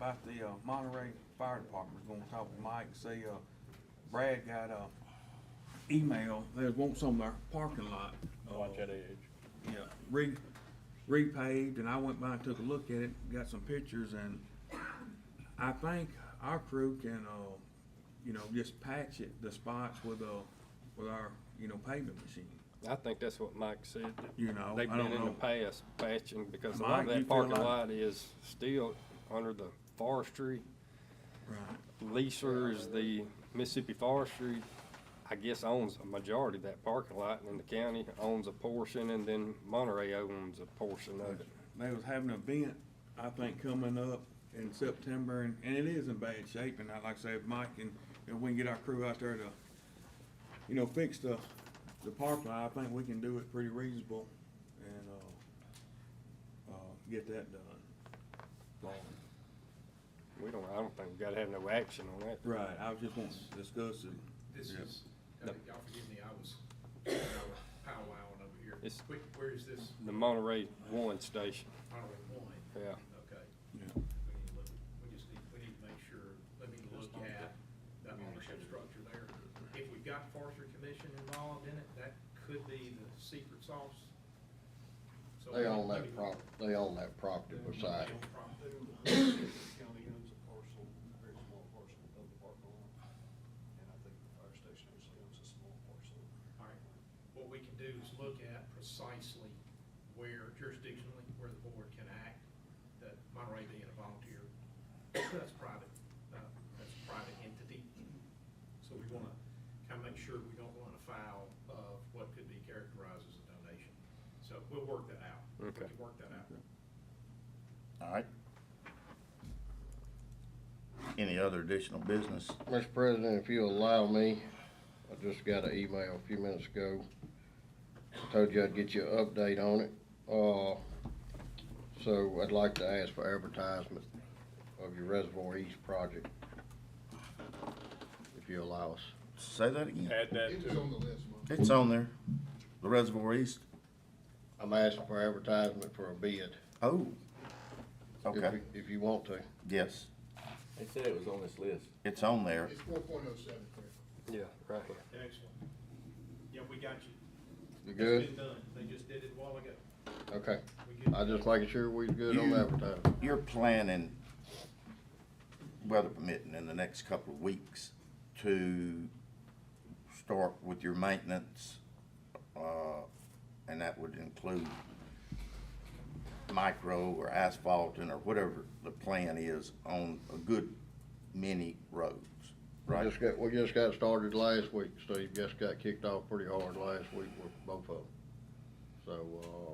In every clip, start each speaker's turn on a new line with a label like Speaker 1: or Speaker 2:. Speaker 1: I, uh, the uh, Monterey Fire Department was gonna talk to Mike, see, uh, Brad got a email, they want some of their parking lot. uh,
Speaker 2: Watch that edge.
Speaker 1: Yeah, re, repaved, and I went by and took a look at it, got some pictures, and I think our crew can, uh, you know, just patch it, the spots with, uh, with our, you know, paving machine,
Speaker 2: I think that's what Mike said. that
Speaker 1: you know?
Speaker 2: They've
Speaker 1: I don't
Speaker 2: been in the
Speaker 1: know.
Speaker 2: past patching because a lot
Speaker 1: Mike,
Speaker 2: of
Speaker 1: you feel
Speaker 2: that parking
Speaker 1: like-
Speaker 2: lot is still under the forestry.
Speaker 1: Right.
Speaker 2: Leasers, the Mississippi Forestry, I guess owns a majority of that parking lot and the county owns a portion and then Monterey owns a portion of it.
Speaker 1: They was having an event, I think, coming up in September, and, and it is in bad shape, and I, like I said, Mike, and if we can get our crew out there to, you know, fix the, the park lot, I think we can do it pretty reasonable and, uh, uh, get that done.
Speaker 2: We don't, I don't think we gotta have no action on that.
Speaker 1: Right, I was just wanting to discuss it.
Speaker 3: This
Speaker 1: Yeah.
Speaker 3: is, uh, y'all forgive me, I was powwowing over here.
Speaker 2: It's-
Speaker 3: Wait, where is this?
Speaker 2: The Monterey one station,
Speaker 3: Monterey one,
Speaker 2: yeah.
Speaker 3: okay.
Speaker 1: Yeah.
Speaker 3: We need to look, we just need, we need to make sure, let me look at the ownership structure there. If we've got forestry commission involved in it, that could be the secret sauce. So
Speaker 4: They own
Speaker 3: let me-
Speaker 4: that prop, they own that property beside
Speaker 3: They
Speaker 4: it.
Speaker 3: own prop-
Speaker 5: County owns a parcel, very small parcel of the park lot, and I think the fire station actually owns a small parcel.
Speaker 3: All right, what we can do is look at precisely where jurisdictionally, where the board can act, that Monterey being a volunteer, that's private, uh, that's a private entity. So we wanna kinda make sure we don't wanna foul of what could be characterized as a donation. So we'll work that out. We
Speaker 2: Okay.
Speaker 3: can work that out.
Speaker 6: All right. Any other additional business?
Speaker 4: Mr. President, if you'll allow me, I just got an email a few minutes ago. Told you I'd get you an update on it. Uh, so I'd like to ask for advertisement of your Reservoir East project. If you allow us.
Speaker 6: Say that again.
Speaker 2: Add that
Speaker 7: It was on the list, Mom.
Speaker 6: It's on there. The Reservoir East.
Speaker 4: I'm asking for advertisement for a bid.
Speaker 6: Oh.
Speaker 4: if you-
Speaker 6: Okay,
Speaker 4: If you want to.
Speaker 6: yes.
Speaker 8: They said it was on this list.
Speaker 6: It's on there.
Speaker 7: It's four point oh seven, correct?
Speaker 2: Yeah, right here.
Speaker 3: Excellent. Yeah, we got you.
Speaker 4: You
Speaker 3: It's been
Speaker 4: good?
Speaker 3: done. They just did it a while ago.
Speaker 4: Okay.
Speaker 3: We good.
Speaker 4: I just making sure we're good on
Speaker 6: You-
Speaker 4: advertising.
Speaker 6: You're planning, weather permitting, in the next couple of weeks to start with your maintenance, uh, and that would include micro or asphalting or whatever the plan is on a good many roads, right?
Speaker 4: Just got, we just got started last week, Steve, just got kicked off pretty hard last week with both of them. So, uh,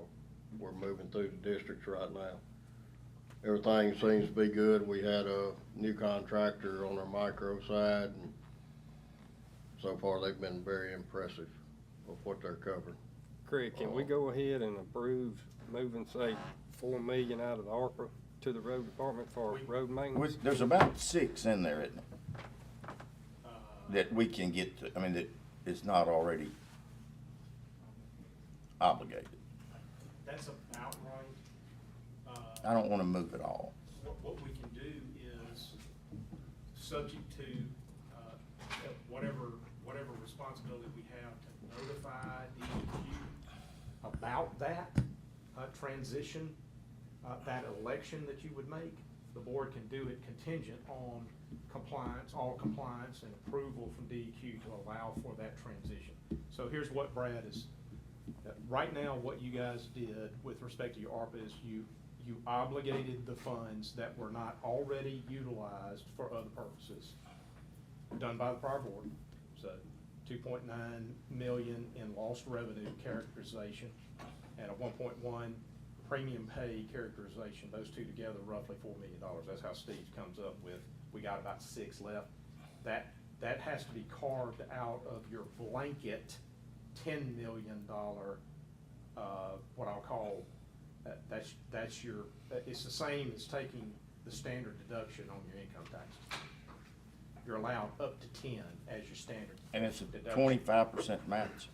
Speaker 4: we're moving through the districts right now. Everything seems to be good, we had a new contractor on our micro side, and so far, they've been very impressive with what they're covering.
Speaker 2: Craig, can we go ahead and approve moving, say, four million out of the ARPA to the road department for road maintenance?
Speaker 6: With- There's about six in there, isn't there,
Speaker 3: Uh,
Speaker 6: that we can get to, I mean, that is not already obligated.
Speaker 3: That's about right. Uh,
Speaker 6: I don't wanna move it all.
Speaker 3: What, what we can do is, subject to, uh, whatever, whatever responsibility we have to notify DEQ about that, uh, transition, uh, that election that you would make, the board can do it contingent on compliance, all compliance and approval from DEQ to allow for that transition. So here's what Brad is, uh, Right now, what you guys did with respect to your ARPA is you, you obligated the funds that were not already utilized for other purposes, done by the prior board. So two point nine million in lost revenue characterization and a one point one premium pay characterization, those two together roughly four million dollars. That's how Steve comes up with, we got about six left. That, that has to be carved out of your blanket ten million dollar, uh, what I'll call, that, that's, that's your, uh, it's the same as taking the standard deduction on your income tax. You're allowed up to ten as your standard.
Speaker 6: And it's a
Speaker 3: deduction.
Speaker 6: twenty-five percent match?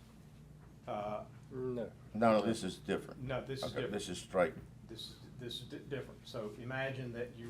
Speaker 3: Uh,
Speaker 2: No.
Speaker 6: No, no, this is different.
Speaker 3: no, this is
Speaker 6: Okay,
Speaker 3: different.
Speaker 6: This is straight.
Speaker 3: This is, this is di- different. So imagine that you